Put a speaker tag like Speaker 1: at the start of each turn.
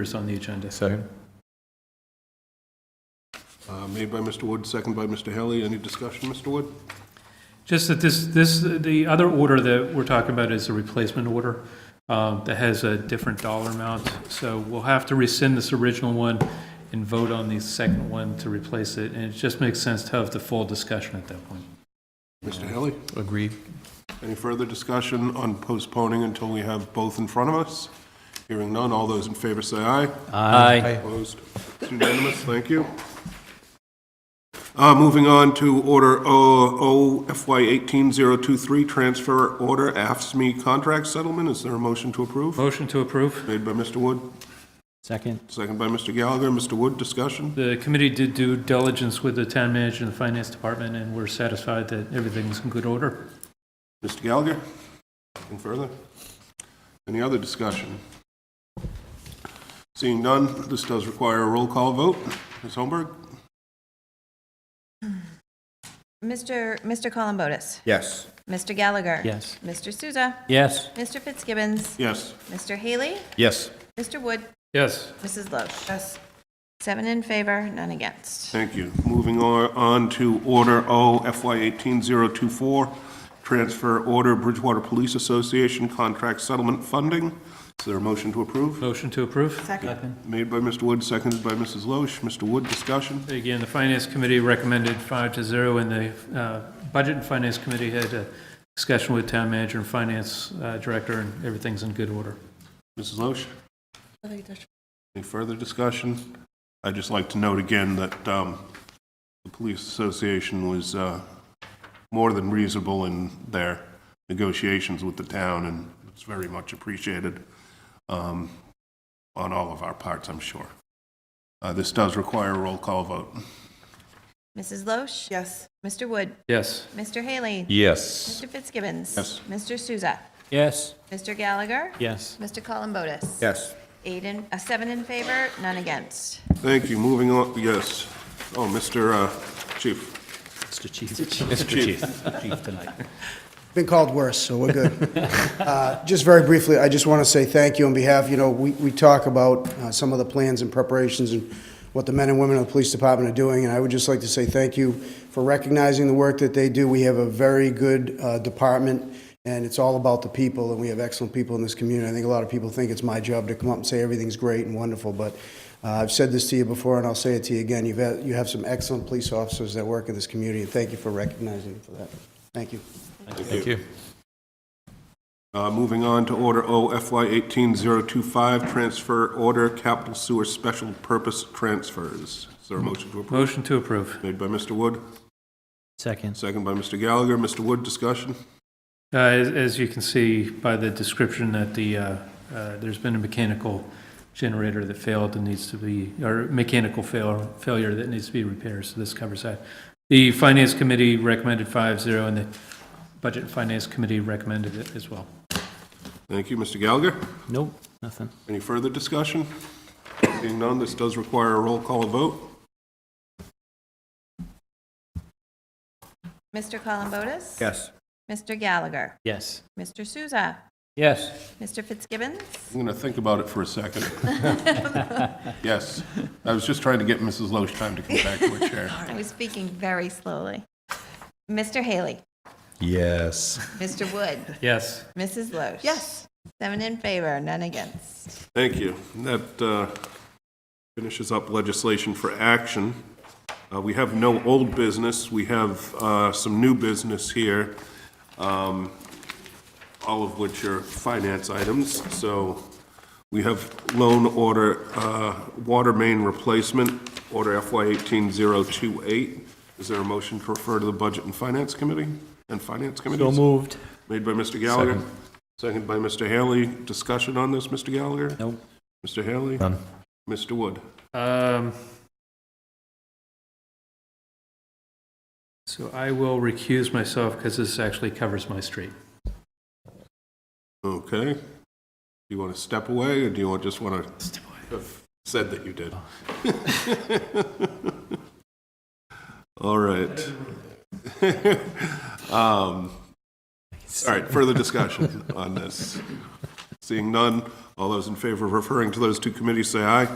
Speaker 1: Is on the agenda. Second.
Speaker 2: Uh, Made by Mr. Wood, second by Mr. Haley. Any discussion, Mr. Wood?
Speaker 1: Just that this, this, the other order that we're talking about is a replacement order um, that has a different dollar amount. So we'll have to rescind this original one and vote on the second one to replace it. And it just makes sense to have the full discussion at that point.
Speaker 2: Mr. Haley?
Speaker 3: Agreed.
Speaker 2: Any further discussion on postponing until we have both in front of us? Hearing none, all those in favor say aye.
Speaker 3: Aye.
Speaker 2: Opposed? It's unanimous, thank you. Uh, Moving on to Order O OFY18023, Transfer Order AFSMI E Contract Settlement. Is there a motion to approve?
Speaker 1: Motion to approve.
Speaker 2: Made by Mr. Wood,
Speaker 3: Second.
Speaker 2: second by Mr. Gallagher. Mr. Wood, discussion?
Speaker 1: The committee did due diligence with the town manager and the finance department, and we're satisfied that everything's in good order.
Speaker 2: Mr. Gallagher? Anything further? Any other discussion? Seeing none, this does require a roll call vote. Ms. Holmberg?
Speaker 4: Mr. Mr. Columbotus.
Speaker 5: Yes.
Speaker 4: Mr. Gallagher.
Speaker 3: Yes.
Speaker 4: Mr. Souza.
Speaker 3: Yes.
Speaker 4: Mr. Fitzgibbons.
Speaker 2: Yes.
Speaker 4: Mr. Haley.
Speaker 5: Yes.
Speaker 4: Mr. Wood.
Speaker 1: Yes.
Speaker 4: Mrs. Loesch. Yes. Seven in favor, none against.
Speaker 2: Thank you. Moving on on to Order O FY18024, Transfer Order Bridgewater Police Association Contract Settlement Funding. Is there a motion to approve?
Speaker 1: Motion to approve.
Speaker 4: Second.
Speaker 2: Made by Mr. Wood, seconded by Mrs. Loesch. Mr. Wood, discussion?
Speaker 1: Again, the Finance Committee recommended five to zero, and the uh, Budget and Finance Committee had a discussion with Town Manager and Finance uh, Director, and everything's in good order.
Speaker 2: Mrs. Loesch? Any further discussion? I'd just like to note again that um, the Police Association was uh, more than reasonable in their negotiations with the town, and it's very much appreciated um, on all of our parts, I'm sure. Uh, This does require a roll call vote.
Speaker 4: Mrs. Loesch. Yes. Mr. Wood.
Speaker 1: Yes.
Speaker 4: Mr. Haley.
Speaker 5: Yes.
Speaker 4: Mr. Fitzgibbons.
Speaker 2: Yes.
Speaker 4: Mr. Souza.
Speaker 3: Yes.
Speaker 4: Mr. Gallagher.
Speaker 3: Yes.
Speaker 4: Mr. Columbotus.
Speaker 5: Yes.
Speaker 4: Eight in, uh, seven in favor, none against.
Speaker 2: Thank you, moving on, yes. Oh, Mr. uh, Chief.
Speaker 3: Mr. Chief. Mr. Chief. Chief tonight.
Speaker 6: Been called worse, so we're good. Uh, Just very briefly, I just want to say thank you on behalf, you know, we, we talk about uh, some of the plans and preparations and what the men and women of the police department are doing, and I would just like to say thank you for recognizing the work that they do. We have a very good uh, department, and it's all about the people, and we have excellent people in this community. I think a lot of people think it's my job to come up and say everything's great and wonderful, but uh, I've said this to you before, and I'll say it to you again. You've, had- you have some excellent police officers that work in this community, and thank you for recognizing them for that. Thank you.
Speaker 3: Thank you.
Speaker 2: Uh, Moving on to Order O FY18025, Transfer Order Capital Sewer Special Purpose Transfers. Is there a motion to approve?
Speaker 1: Motion to approve.
Speaker 2: Made by Mr. Wood,
Speaker 3: Second.
Speaker 2: second by Mr. Gallagher. Mr. Wood, discussion?
Speaker 1: Uh, As as you can see by the description that the, uh, uh, there's been a mechanical generator that failed and needs to be, or mechanical fail- failure that needs to be repaired, so this covers that. The Finance Committee recommended five zero, and the Budget and Finance Committee recommended it as well.
Speaker 2: Thank you, Mr. Gallagher.
Speaker 3: Nope, nothing.
Speaker 2: Any further discussion? Being none, this does require a roll call vote.
Speaker 4: Mr. Columbotus.
Speaker 5: Yes.
Speaker 4: Mr. Gallagher.
Speaker 3: Yes.
Speaker 4: Mr. Souza.
Speaker 3: Yes.
Speaker 4: Mr. Fitzgibbons.
Speaker 2: I'm going to think about it for a second. Yes, I was just trying to get Mrs. Loesch time to come back to her chair.
Speaker 4: I was speaking very slowly. Mr. Haley,
Speaker 5: Yes.
Speaker 4: Mr. Wood,
Speaker 1: Yes.
Speaker 4: Mrs. Loesch. Yes. Seven in favor, none against.
Speaker 2: Thank you. That uh, finishes up legislation for action. Uh, We have no old business. We have uh, some new business here, um, all of which are finance items. So we have loan order, uh, water main replacement, order FY 18028. Is there a motion to refer to the Budget and Finance Committee? And Finance Committee?
Speaker 3: So moved.
Speaker 2: Made by Mr. Gallagher. Second by Mr. Haley. Discussion on this, Mr. Gallagher?
Speaker 3: Nope.
Speaker 2: Mr. Haley?
Speaker 5: None.
Speaker 2: Mr. Wood?
Speaker 1: Um, So I will recuse myself because this actually covers my street.
Speaker 2: Okay. Do you want to step away, or do you want- just want to have said that you did? All right. Um, All right, further discussion on this. Seeing none, all those in favor of referring to those two committees, say aye.